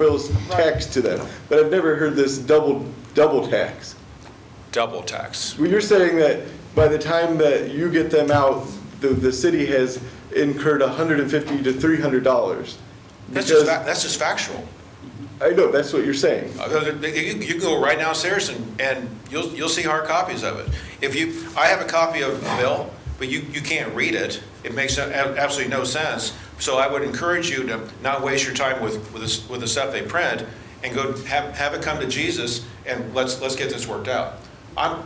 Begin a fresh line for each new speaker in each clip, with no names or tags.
Bill's tax to them, but I've never heard this double, double tax.
double tax.
Well, you're saying that by the time that you get them out, the, the city has incurred hundred and fifty to three hundred dollars.
That's just,
Because-
fac- that's just factual.
I know, that's what you're saying.
Uh, You you can go right downstairs and, and you'll, you'll see hard copies of it. If you, I have a copy of the bill, but you, you can't read it. It makes a- absolutely no sense. So I would encourage you to not waste your time with, with this- with the stuff they print and go have, have it come to Jesus and let's, let's get this worked out. I'm,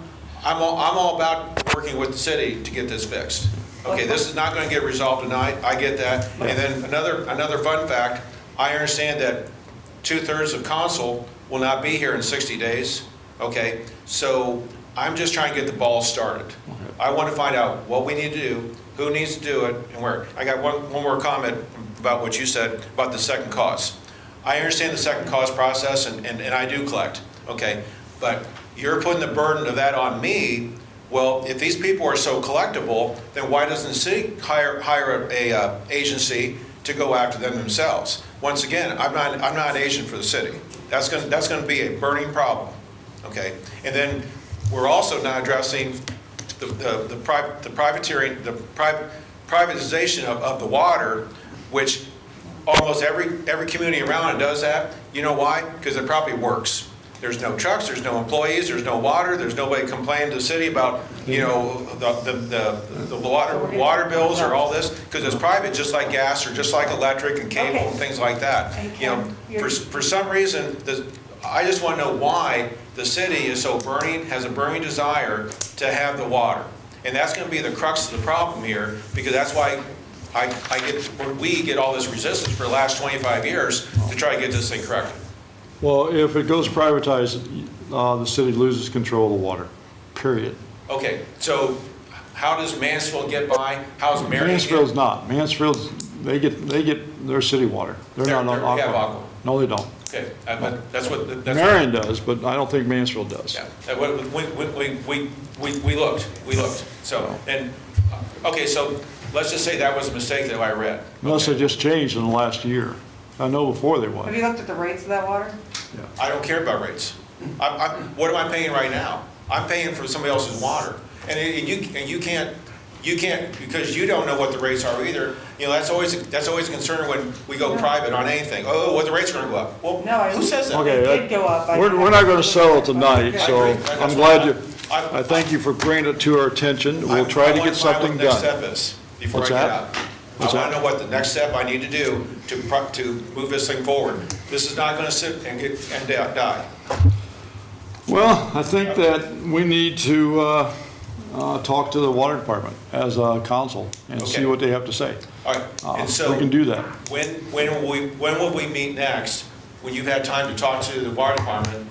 I'm all, I'm all about working with the city to get this fixed. Okay, this is not gonna get resolved tonight, I get that. And then another, another fun fact, I understand that two-thirds of council will not be here in 60 days, okay? So I'm just trying to get the ball started. I want to find out what we need to do, who needs to do it, and where. I got one, one more comment about what you said about the second cause. I understand the second cause process, and, and and I do collect, okay? But you're putting the burden of that on me. Well, if these people are so collectible, then why doesn't the city hire, hire a, uh, agency to go after them themselves? Once again, I'm not, I'm not an agent for the city. That's gonna, that's gonna be a burning problem, okay? And then, we're also not addressing the, the the pri- the privateering, the pri- privatization of, of the water, which almost every, every community around it does that. You know why? Because it probably works. There's no trucks, there's no employees, there's no water, there's nobody complaining to the city about, you know, the, the- the, the water, water bills or all this, because it's private, just like gas or just like electric and cable and
Okay.
things like that.
Okay,
You know, for,
you're-
for some reason, the, I just want to know why the city is so burning, has a burning desire to have the water. And that's going to be the crux of the problem here, because that's why I, I get, we get all this resistance for the last 25 years to try to get this thing corrected.
Well, if it goes privatized, uh, the city loses control of the water, period.
Okay, so how does Mansfield get by? How's Marion? get-
Mansfield's not. Mansfield's, they get, they get their city water. They're
They're-
not on
they're- they have
Aqua.
Aqua.
No, they don't.
Okay, uh, but that's what, that's. what-
Marion does, but I don't think Mansfield does.
Yeah, uh, we, we, we- we, we, we looked, we looked, so, and, uh, okay, so let's just say that was a mistake that I read.
Unless they
Okay.
just changed in the last year. I know before they
Have
was.
you looked at the rates of that water?
I don't care about rates. I'm, I'm, what am I paying right now? I'm paying for somebody else's water. And it- and you, and you can't, you can't, because you don't know what the rates are either. You know, that's always, that's always a concern when we go private on anything. Oh, what the rates are gonna go up. Well,
No, I-
who says that?
Okay,
It did
that-
go up. I-
We're, we're not going to settle tonight,
I
so
agree. That's
I'm
what I-
glad you,
I-
I thank you for bringing it to our attention.
I-
We'll try to
I wanna
get
find what
something
the next
done.
step is Before I
What's
get
that?
out. I want
What's that?
to know what the next step I need to do to, pro- to move this thing forward. This is not going to sit and get, and da- die.
Well, I think that we need to uh, uh, talk to the water department as a council and
Okay.
see what they have to say.
All right,
Uh,
and so.
We can do that.
When, when will we, when will we meet next? When you've had time to talk to the water department?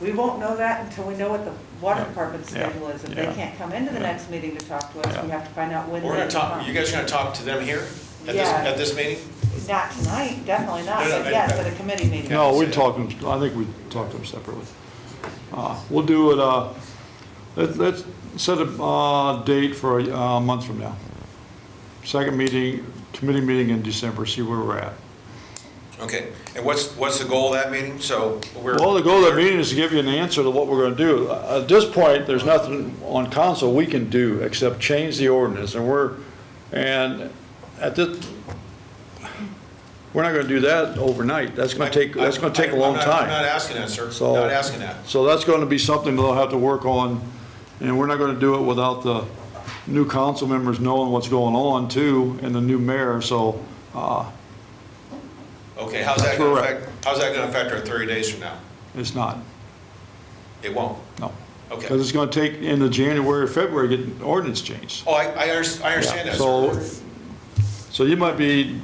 We won't know that until we know what the water
Yeah.
department's
Yeah.
schedule is. If they
Yeah.
can't come into the next meeting to talk to us, we
Yeah.
have to find out when they
We're going to talk,
come.
you guys are going to talk to them here at this,
Yeah.
at this meeting?
Not tonight, definitely not,
No, no,
but
I-
yes, at a committee meeting.
No, we
Yeah.
talked, them- I think we talked them separately. Uh, We'll do it, uh, let- let's set a uh, date for a uh, month from now. Second meeting, committee meeting in December, see where we're at.
Okay, and what's, what's the goal of that meeting? So we're.
Well, the goal of the meeting is to give you an answer to what we're gonna do. At this point, there's nothing on council we can do except change the ordinance, and we're, and at this, we're not gonna do that overnight. That's gonna take, that's gonna take a long
I'm not- I'm not
time.
asking that, sir.
So-
Not asking that.
So that's gonna be something they'll have to work on, and we're not gonna do it without the new council members knowing what's going on too, and the new mayor, so, uh,
Okay, how's that
That's
going to
correct.
affect, how's that going to affect our 30 days from now?
it's not,
It won't.
no.
Okay.
Because it's gonna take into January or February to get the ordinance changed.
Oh, I, I unders- I understand
Yeah,
that,
So,
sir.
so you might be,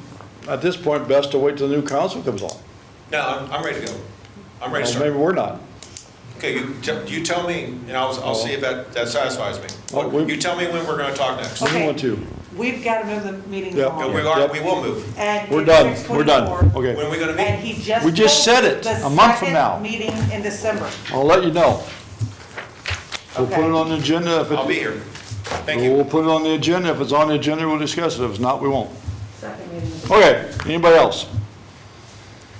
at this point, best to wait till the new council comes on.
No, I'm, I'm ready to go. I'm ready to
Or
start.
Maybe we're not.
Okay, you, te- you tell me, and I'll, I'll see if that, that satisfies me.
Oh, we-
You tell me when we're going to talk next.
We
Okay.
want to.
We've got to move the meeting
Yep.
No,
along.
We are,
Yep.
we will move.
And
We're
it's
done, we're done,
6:24,
When are
okay.
we going to
And
meet?
he just.
We just
told
said
you
it,
the
a month from
second
now.
Meeting in December.
I'll let you know. We'll put
Okay.
it on the agenda if it.
I'll be here. Thank you.
We'll put it on the agenda. If it's on the agenda, we'll discuss it. If it's not, we won't.
Second meeting.
Okay, anybody else?